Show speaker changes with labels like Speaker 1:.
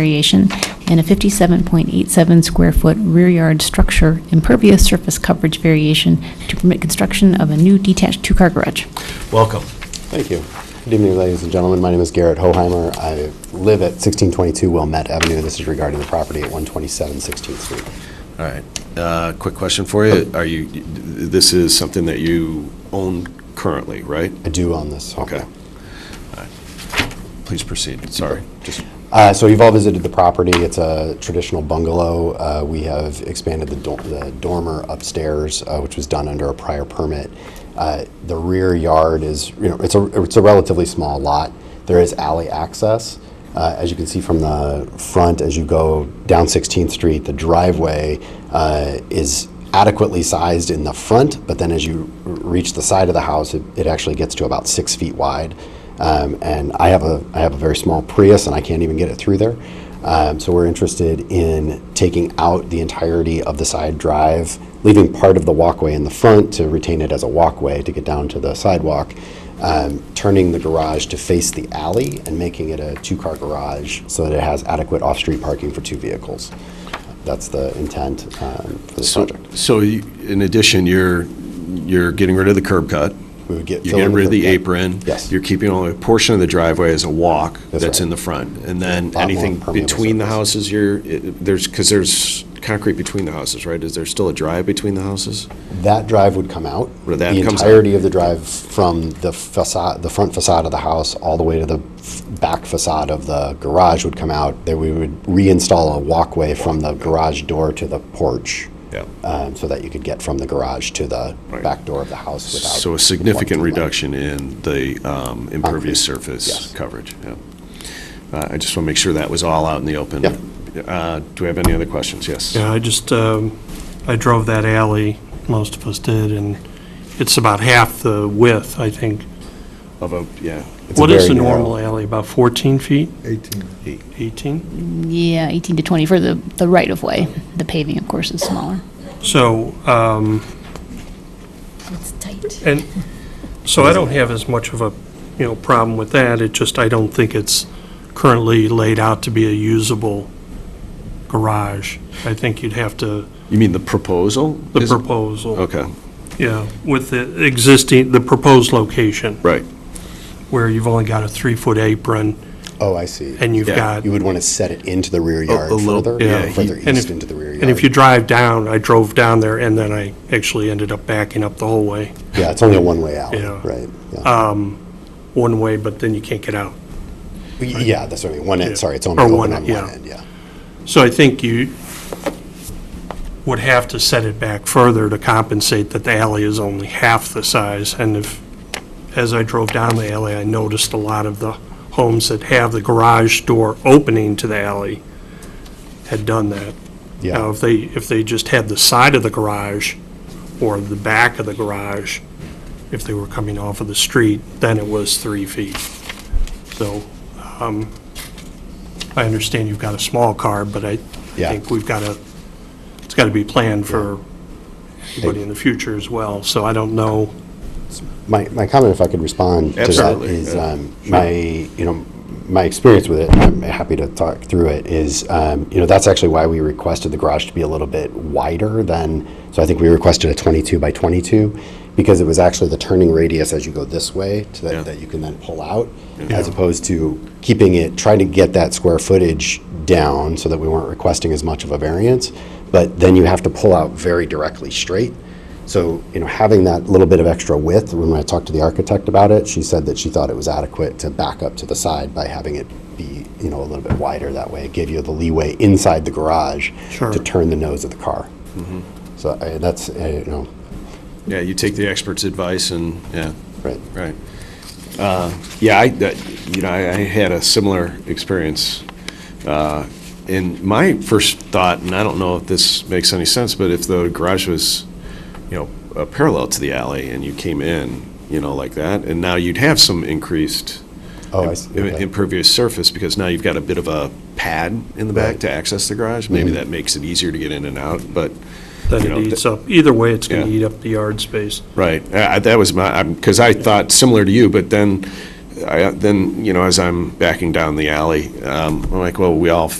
Speaker 1: variation and a 57.87 square foot rear yard structure impervious surface coverage variation to permit construction of a new detached two-car garage.
Speaker 2: Welcome.
Speaker 3: Thank you. Good evening, ladies and gentlemen. My name is Garrett Hoheimer. I live at 1622 Wilmette Avenue. This is regarding the property at 127 16th Street.
Speaker 2: All right. Uh, Quick question for you. Are you, this is something that you own currently, right?
Speaker 3: I do own this home.
Speaker 2: Okay. All right. Please proceed. Sorry. Just,
Speaker 3: Uh, So you've all visited the property. It's a traditional bungalow. Uh, We have expanded the dor- the dormer upstairs, uh, which was done under a prior permit. Uh, The rear yard is, you know, it's a it's a relatively small lot. There is alley access. Uh, As you can see from the front, as you go down 16th Street, the driveway uh, is adequately sized in the front, but then as you r- reach the side of the house, it it actually gets to about six feet wide. Um, and I have a I have a very small Prius, and I can't even get it through there. Um, so we're interested in taking out the entirety of the side drive, leaving part of the walkway in the front to retain it as a walkway to get down to the sidewalk, um, turning the garage to face the alley and making it a two-car garage so that it has adequate off-street parking for two vehicles. That's the intent um, for this
Speaker 2: so,
Speaker 3: project.
Speaker 2: so you- in addition, you're, you're getting rid of the curb cut.
Speaker 3: We would get
Speaker 2: You're
Speaker 3: fill in
Speaker 2: getting
Speaker 3: the
Speaker 2: rid of
Speaker 3: curb
Speaker 2: the
Speaker 3: cut.
Speaker 2: apron.
Speaker 3: Yes.
Speaker 2: You're keeping only a portion of the driveway as a walk
Speaker 3: That's
Speaker 2: that's
Speaker 3: right.
Speaker 2: in the front. And then
Speaker 3: Lot more
Speaker 2: anything
Speaker 3: permeable
Speaker 2: between the
Speaker 3: surface.
Speaker 2: houses, you're, it- there's, because there's concrete between the houses, right? Is there still a drive between the houses?
Speaker 3: That drive would come out.
Speaker 2: Where that
Speaker 3: The
Speaker 2: comes out.
Speaker 3: entirety of the drive from the facade, the front facade of the house, all the way to the f- back facade of the garage would come out. There we would reinstall a walkway from the garage door to the porch.
Speaker 2: Yeah.
Speaker 3: um, So that you could get from the garage to the
Speaker 2: Right.
Speaker 3: back door of the house without.
Speaker 2: So a significant
Speaker 3: blocking the light.
Speaker 2: reduction in the um, impervious surface
Speaker 3: yes.
Speaker 2: coverage, yeah. Uh, I just want to make sure that was all out in the open.
Speaker 3: Yeah.
Speaker 2: Uh, Do we have any other questions? Yes.
Speaker 4: Yeah, I just, um, I drove that alley, most of us did, and it's about half the width, I think.
Speaker 2: Of a, yeah,
Speaker 3: It's a
Speaker 4: What is
Speaker 3: very
Speaker 4: a
Speaker 3: narrow-
Speaker 4: normal alley, about 14 feet,
Speaker 5: 18.
Speaker 4: 18?
Speaker 1: Yeah, 18 to 20 for the, the right-of-way. The paving, of course, is smaller.
Speaker 4: So, um,
Speaker 1: It's tight.
Speaker 4: and, so I don't have as much of a, you know, problem with that, it just, I don't think it's currently laid out to be a usable garage. I think you'd have to,
Speaker 2: you mean the proposal?
Speaker 4: the
Speaker 2: is-
Speaker 4: proposal.
Speaker 2: Okay,
Speaker 4: Yeah, with the existing, the proposed location,
Speaker 2: right.
Speaker 4: where you've only got a three-foot apron,
Speaker 3: Oh, I see.
Speaker 4: and you've
Speaker 2: Yeah,
Speaker 4: got
Speaker 3: You would want to set it into the rear yard
Speaker 2: a little-
Speaker 3: further,
Speaker 2: yeah,
Speaker 3: further
Speaker 4: And
Speaker 3: east
Speaker 4: if-
Speaker 3: into the rear yard.
Speaker 4: And if you drive down, I drove down there, and then I actually ended up backing up the whole way,
Speaker 3: Yeah, it's only a one-way out,
Speaker 4: Yeah. Uh,
Speaker 3: right? Yeah.
Speaker 4: one way, but then you can't get out.
Speaker 3: Yeah, that's what I mean, one
Speaker 4: Yeah.
Speaker 3: end, sorry, it's
Speaker 4: Or
Speaker 3: only open
Speaker 4: one
Speaker 3: on
Speaker 4: end,
Speaker 3: one
Speaker 4: yeah.
Speaker 3: end, yeah.
Speaker 4: So I think you would have to set it back further to compensate that the alley is only half the size. And if, as I drove down the alley, I noticed a lot of the homes that have the garage door opening to the alley had done that.
Speaker 3: Yeah.
Speaker 4: Now, Uh, if they, if they just had the side of the garage or the back of the garage, if they were coming off of the street, then it was three feet. So um, I understand you've got a small car, but I I
Speaker 3: Yeah.
Speaker 4: think we've got to, it's got to be planned for everybody in the future as well, so I don't know.
Speaker 3: My, my comment, if I could respond to that,
Speaker 2: Absolutely,
Speaker 3: is
Speaker 2: yeah.
Speaker 3: um, my, you know, my experience with it, and I'm happy to talk through it, is, um, you know, that's actually why we requested the garage to be a little bit wider than, so I think we requested a 22 by 22, because it was actually the turning radius as you go this way, to
Speaker 2: Yeah.
Speaker 3: that, that you can then pull out, as opposed to keeping it, trying to get that square footage down so that we weren't requesting as much of a variance, but then you have to pull out very directly straight. So, you know, having that little bit of extra width, when I talked to the architect about it, she said that she thought it was adequate to back up to the side by having it be, you know, a little bit wider that way. It gave you the leeway inside the garage
Speaker 4: Sure.
Speaker 3: to turn the nose of the car. So I, that's, uh, you know,
Speaker 2: Yeah, you take the expert's advice and, yeah,
Speaker 3: right.
Speaker 2: right. Uh, Yeah, I, that- you know, I I had a similar experience. Uh, And my first thought, and I don't know if this makes any sense, but if the garage was, you know, uh, parallel to the alley and you came in, you know, like that, and now you'd have some increased
Speaker 3: Oh, I see.
Speaker 2: im-
Speaker 3: Okay.
Speaker 2: impervious surface because now you've got a bit of a pad in the back
Speaker 3: Right. Mm-hmm.
Speaker 2: to access the garage. Maybe that makes it easier to get in and out, but,
Speaker 4: that
Speaker 2: You know,
Speaker 4: it eats up, either way, it's going to
Speaker 2: Yeah.
Speaker 4: eat up the yard space.
Speaker 2: right. Uh, That was my, because I thought similar to you, but then, I- then, you know, as I'm backing down the alley, um, I'm like, well, we all